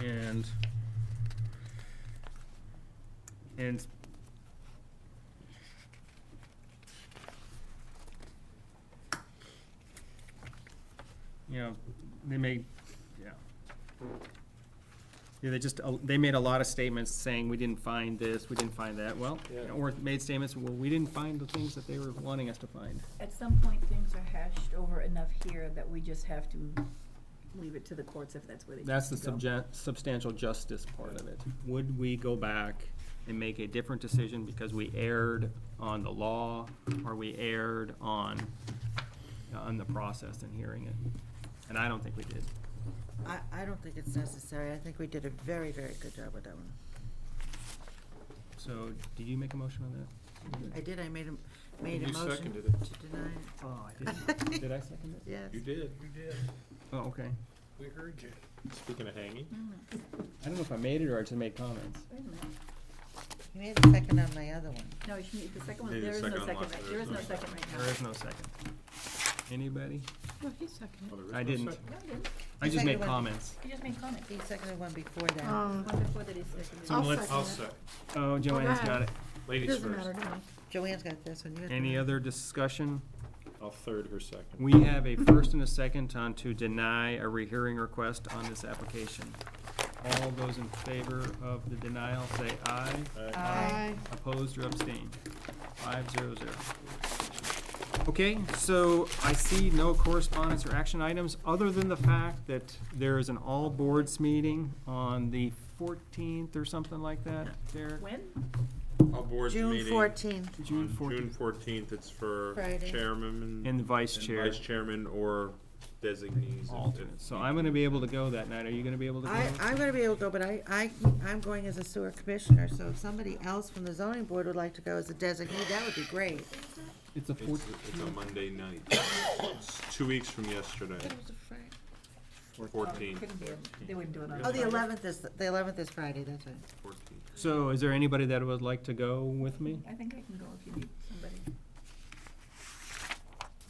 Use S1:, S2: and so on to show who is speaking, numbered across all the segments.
S1: and and you know, they made, yeah. Yeah, they just, uh, they made a lot of statements saying, we didn't find this, we didn't find that, well,
S2: Yeah.
S1: or made statements, well, we didn't find the things that they were wanting us to find.
S3: At some point, things are hashed over enough here that we just have to leave it to the courts if that's where they choose to go.
S1: That's the subject, substantial justice part of it. Would we go back and make a different decision because we erred on the law, or we erred on, on the process and hearing it? And I don't think we did.
S4: I, I don't think it's necessary. I think we did a very, very good job with that one.
S1: So, did you make a motion on that?
S4: I did, I made a, made a
S2: You
S4: motion.
S2: seconded it.
S4: To deny it,
S1: Oh, I didn't. Did I second it?
S4: yes.
S2: You did. You did.
S1: Oh, okay.
S2: We heard you. Speaking of hanging,
S1: I don't know if I made it or I just made comments.
S3: Wait a minute.
S4: You made a second on my other one.
S3: No, you need the second one,
S2: Need the
S3: there is no
S2: second
S3: second,
S2: one.
S3: right- there is no second right now.
S1: There is no second. Anybody?
S3: No, he seconded.
S2: well, there is
S1: I
S2: no
S1: didn't.
S2: second.
S3: No, he didn't.
S1: I just
S4: Second
S1: made
S4: one.
S1: comments.
S3: He just made comments.
S4: He seconded one before that.
S3: One
S5: Um,
S3: before that he seconded.
S1: So
S5: I'll
S1: let's-
S5: second
S2: I'll
S5: it.
S2: second.
S1: Oh, Joanne's got it.
S2: Ladies
S5: Doesn't
S2: first.
S5: matter to me.
S4: Joanne's got this one. You got that
S1: Any
S4: one.
S1: other discussion?
S2: I'll third her second.
S1: We have a first and a second on to deny a rehearing request on this application. All those in favor of the denial, say aye.
S2: Uh,
S4: Aye.
S1: Opposed or abstained? Five zero zero. Okay, so I see no correspondence or action items, other than the fact that there is an all boards meeting on the fourteenth or something like that, Derek?
S3: When?
S2: All boards
S4: June
S2: meeting.
S4: fourteenth.
S1: June
S2: on June
S1: 14th.
S2: fourteenth, it's for
S4: Friday.
S2: chairman and
S1: And vice chair,
S2: vice chairman or designees. if- if-
S1: alternate. So I'm gonna be able to go that night. Are you gonna be able to go?
S4: I, I'm gonna be able to go, but I, I, I'm going as a sewer commissioner, so if somebody else from the zoning board would like to go as a designee, that would be great.
S1: It's a
S2: It's,
S1: fourteenth.
S2: it's a Monday night. It's two weeks from yesterday, fourteenth.
S3: Oh, Couldn't be, they wouldn't do it on.
S4: Oh, the
S3: Friday.
S4: eleventh is, the eleventh is Friday, that's right.
S1: So is there anybody that would like to go with me?
S3: I think I can go if you need somebody.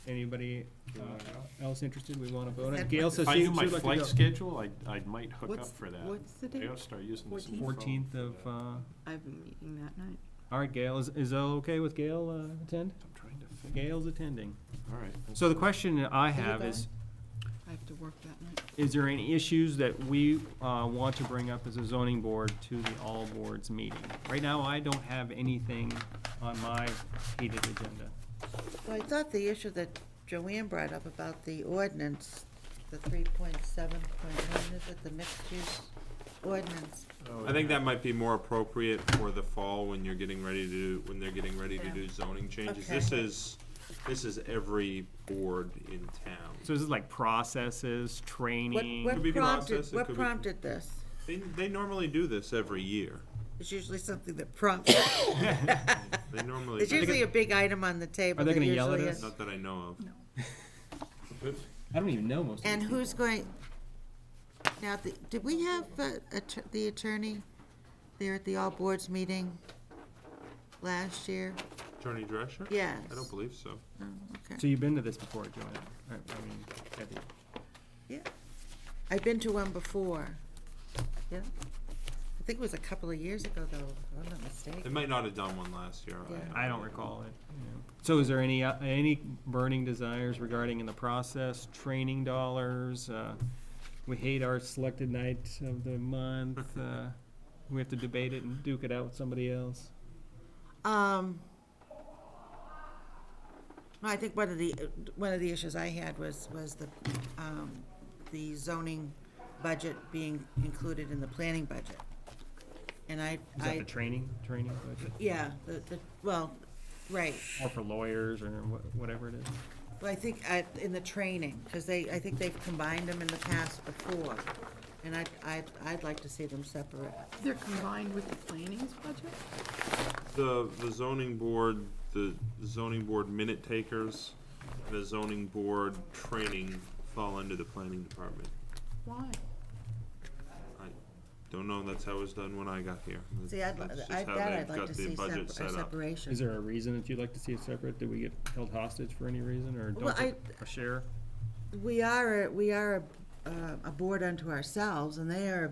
S1: Anybody uh, else interested? We wanna vote on it?
S4: That-
S1: Gail says
S2: If I
S1: she she would
S2: knew my
S1: like to go.
S2: flight schedule, I, I might hook
S5: What's-
S2: up for that.
S5: What's the
S2: I
S5: date?
S2: gotta start using this. new
S5: 14th?
S2: phone
S1: Fourteenth
S2: for
S1: of,
S2: that.
S1: uh,
S5: I have a meeting that night.
S1: all right, Gail, is, is that okay with Gail, uh, attend?
S2: I'm trying to figure.
S1: Gail's attending.
S2: All right.
S1: So the question I have is,
S5: I have to work that night.
S1: is there any issues that we, uh, want to bring up as a zoning board to the all boards meeting? Right now, I don't have anything on my heated agenda.
S4: Well, I thought the issue that Joanne brought up about the ordinance, the three point seven point one, is it the mixed use ordinance?
S2: I think that might be more appropriate for the fall when you're getting ready to, do when they're getting ready to
S3: Yeah.
S2: do zoning changes.
S4: Okay.
S2: This is, this is every board in town.
S1: So this is like processes,
S4: What,
S1: training?
S2: Mm, Could be
S4: what prompted,
S2: process, it could
S4: what
S2: be-
S4: prompted this?
S2: They, they normally do this every year.
S4: It's usually something that prompts,
S2: They normally,
S4: it's
S2: do
S4: usually a big item on the table.
S1: Are they
S4: that
S1: gonna yell at
S4: usually
S1: us?
S4: is-
S2: not that I know
S3: No.
S2: of.
S1: I don't even know most of these
S4: And
S1: people.
S4: who's going, now, the- did we have uh, att- the attorney there at the all boards meeting last year?
S2: Attorney Drescher?
S4: Yes.
S2: I don't believe so.
S4: Oh, okay.
S1: So you've been to this before, Joanna? I I mean, Kathy.
S4: Yeah. I've been to one before. Yeah. I think it was a couple of years ago, though, if I'm not
S2: They
S4: mistaken.
S2: might not have done one last year.
S4: Yeah.
S1: I don't recall it. yeah. So is there any, uh, any burning desires regarding in the process, training dollars? uh, We hate our selected night of the month. uh, We have to debate it and duke it out with somebody else.
S4: Um, no, I think one of the, one of the issues I had was, was the, um, the zoning budget being included in the planning budget. And I,
S1: Is that
S4: I,
S1: the training, training budget?
S4: yeah, the, the, well, right.
S1: Or for lawyers or wha- whatever it is?
S4: Well, I think, I, in the training, because they, I think they've combined them in the past before. And I, I, I'd like to see them separate.
S5: They're combined with the planning's budget?
S2: The, the zoning board, the zoning board minute takers, the zoning board training fall under the planning department.
S5: Why?
S2: I don't know, that's how it was done when I got here. That's-
S4: See, I'd, li-
S2: that's just
S4: I-
S2: how
S4: that
S2: they've
S4: I'd like
S2: got
S4: to
S2: the
S4: see
S2: budget
S4: separ- a
S2: set up.
S4: separation.
S1: Is there a reason that you'd like to see it separate? Did we get held hostage for any reason or
S4: Well,
S1: don't
S4: I-
S1: get a share?
S4: We are, a- we are a, uh, a board unto ourselves, and they are